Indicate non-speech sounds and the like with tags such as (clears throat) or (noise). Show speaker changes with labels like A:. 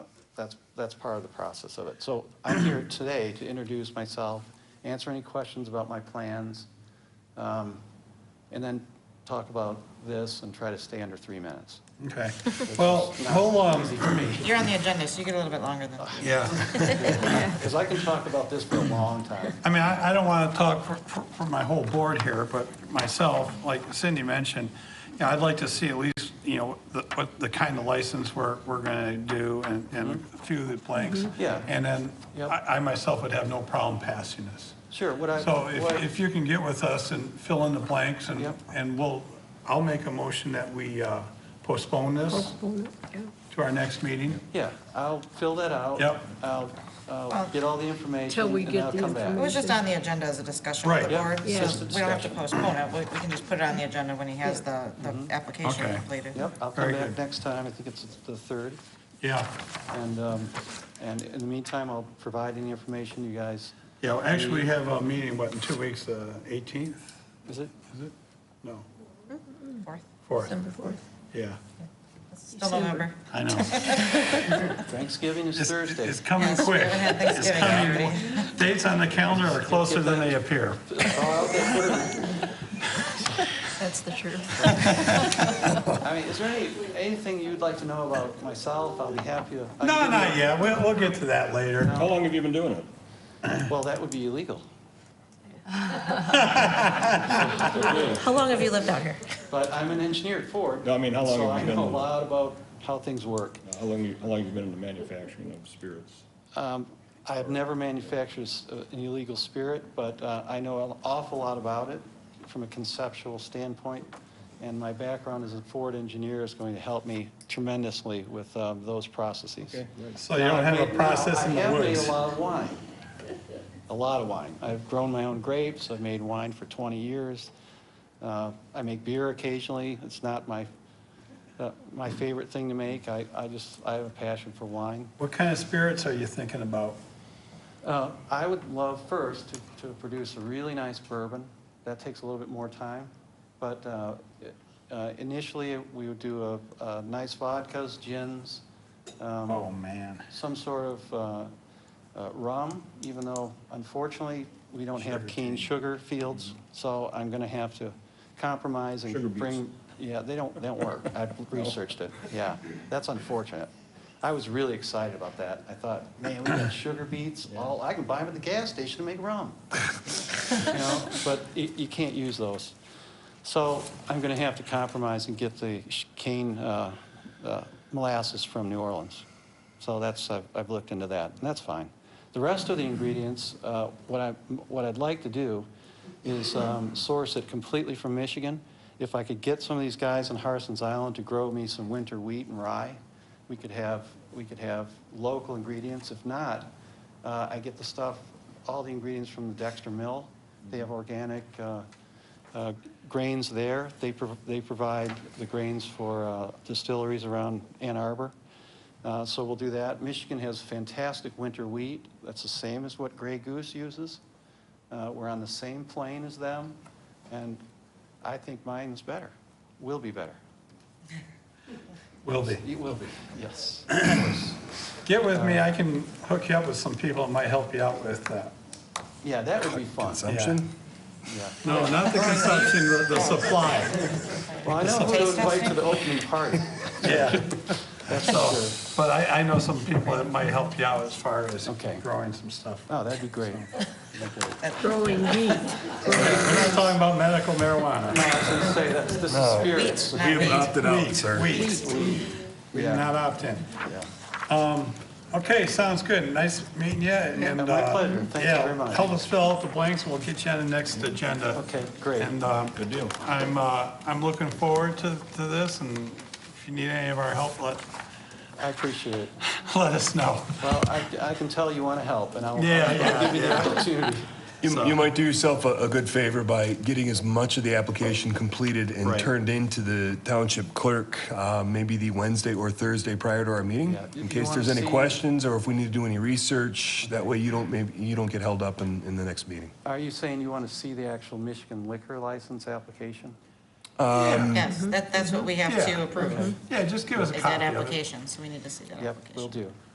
A: that's, that's part of the process of it. So I'm here today to introduce myself, answer any questions about my plans, um, and then talk about this and try to stay under three minutes.
B: Okay, well, hold on.
C: You're on the agenda, so you get a little bit longer than.
B: Yeah,
A: Because I can talk about this for a long time.
B: I mean, I, I don't want to talk for, for, for my whole board here, but myself, like Cindy mentioned, you know, I'd like to see at least, you know, the, what the kind of license we're, we're going to do and, and a few of the blanks.
A: Mm-hmm. Yeah.
B: And then
A: Yep.
B: I, I myself would have no problem passing this.
A: Sure, what I.
B: So
A: what-
B: if, if you can get with us and fill in the blanks and,
A: Yep.
B: and we'll, I'll make a motion that we uh, postpone
A: Oh.
B: this to our next meeting.
A: Yeah, I'll fill that out.
B: Yep.
A: I'll, I'll
C: Well-
A: get all the information
D: Till we
A: and
D: get
A: I'll
D: the
A: come back.
C: It was just on the agenda as a discussion with the
B: Right.
C: board,
D: Yeah.
C: so we don't have to postpone it, we we can just put it on the agenda when he has the, the application
B: Okay.
C: completed.
A: Yep, I'll come
B: Very
A: back
B: good.
A: next time, I think it's the third.
B: Yeah,
A: And, um, and in the meantime, I'll provide any information you guys,
B: yeah, well, actually, we have a meeting, what, in two weeks, the 18th,
A: is it?
B: is it? No,
C: Fourth.
B: 4th, yeah,
C: Still November.
B: I know.
A: Thanksgiving is
B: It's-
A: Thursday.
B: It's coming
C: Yes, we
B: quick.
C: haven't had
B: It's
C: Thanksgiving
B: coming.
C: already.
B: Dates on the calendar are closer than they appear.
A: Oh, okay, put it
D: That's the truth.
A: in. I mean, is there any, anything you'd like to know about myself? I'll be happy to. I
B: No,
A: can
B: not
A: give you-
B: yet, we'll, we'll get to that later.
E: How long have you been doing it?
A: Well, that would be illegal,
D: (laughs) How long have you lived out here?
A: but I'm an engineer at Ford.
E: No, I mean, how long
A: so
E: have you
A: I know a
E: been-
A: lot about how things work.
E: How long, you- how long have you been in the manufacturing of spirits?
A: Um, I have never manufactured s- uh, an illegal spirit, but uh, I know an awful lot about it from a conceptual standpoint, and my background as a Ford engineer is going to help me tremendously with um, those processes.
B: So Oh, you don't have a process in the
A: I have made
B: woods.
A: a lot of wine, a lot of wine. I've grown my own grapes, I've made wine for 20 years. Uh, I make beer occasionally, it's not my, uh, my favorite thing to make, I I just, I have a passion for wine.
B: What kind of spirits are you thinking about?
A: Uh, I would love first to, to produce a really nice bourbon. That takes a little bit more time, but uh, uh, initially, we would do a, a nice vodkas, gins, um,
B: Oh, man.
A: some sort of uh, uh, rum, even though unfortunately, we don't have cane sugar fields, so I'm going to have to compromise
E: Sugar
A: and
E: beets.
A: bring, yeah, they don't, they don't work. I've researched it, yeah. That's unfortunate. I was really excited about that. I thought, man, we got sugar beets, all, I can buy them at the gas station to make rum. You know, But you you can't use those. So I'm going to have to compromise and get the sh- cane uh, uh, molasses from New Orleans. So that's, I've I've looked into that, and that's fine. The rest of the ingredients, uh, what I, what I'd like to do is um, source it completely from Michigan. If I could get some of these guys in Harson's Island to grow me some winter wheat and rye, we could have, we could have local ingredients. If not, uh, I get the stuff, all the ingredients from the Dexter Mill. They have organic uh, uh, grains there. They, prov- they provide the grains for uh, distilleries around Ann Arbor. Uh, So we'll do that. Michigan has fantastic winter wheat. That's the same as what Grey Goose uses. Uh, We're on the same plane as them, and I think mine's better, will be better.
B: Will be.
A: It will be, yes, of
B: (clears throat)
A: course.
B: Get with
A: Uh,
B: me, I can hook you up with some people that might help you out with that.
A: Yeah, that would be fun.
B: Consumption?
A: Yeah.
C: (laughs)
B: No, not the consumption, the- the supply,
A: Well, I know who to
C: Taste
A: invite to
C: testing?
A: the opening
C: (laughs)
A: party,
B: yeah.
A: (laughs) that's for
B: So,
A: sure.
B: but I, I know some people that might help you out as far as
A: Okay.
B: growing some stuff.
A: Oh, that'd be
C: (laughs)
A: great.
D: Growing wheat. (laughs)
B: We're not talking about medical marijuana.
A: No, I was going to say, that's, this is spirits.
C: Not me.
B: Wheat, Wheat. We did not opt in. Um,
A: Yeah.
B: Okay, sounds good. Nice meeting you and.
A: Yeah, my
B: uh,
A: pleasure. Thank you
B: yeah,
A: very much.
B: Help us fill out the blanks and we'll get you on the next agenda.
A: Okay, great.
B: And, um. Good deal. I'm, uh, I'm looking forward to, to this and if you need any of our help, let, (laughs)
A: I appreciate it.
B: let us know.
A: Well, I, I can tell you want to help, and I'll,
B: Yeah,
A: I'll
B: yeah,
A: give you the opportunity.
F: You, you might do yourself a, a good favor by getting as much of the application completed and
B: Right.
F: turned into the township clerk, uh, maybe the Wednesday or Thursday prior to our meeting,
A: Yeah, if you
F: in case
A: wanna
F: there's any
A: see-
F: questions or if we need to do any research. That way, you don't maybe you don't get held up in, in the next meeting.
A: Are you saying you want to see the actual Michigan liquor license application? Um,
C: Yes, that, that's what we have
B: Yeah.
C: to approve,
B: Yeah, just give us a
C: is
B: copy
C: that
B: of it.
C: application, so we need to see that
A: Yep,
C: application.
A: will do.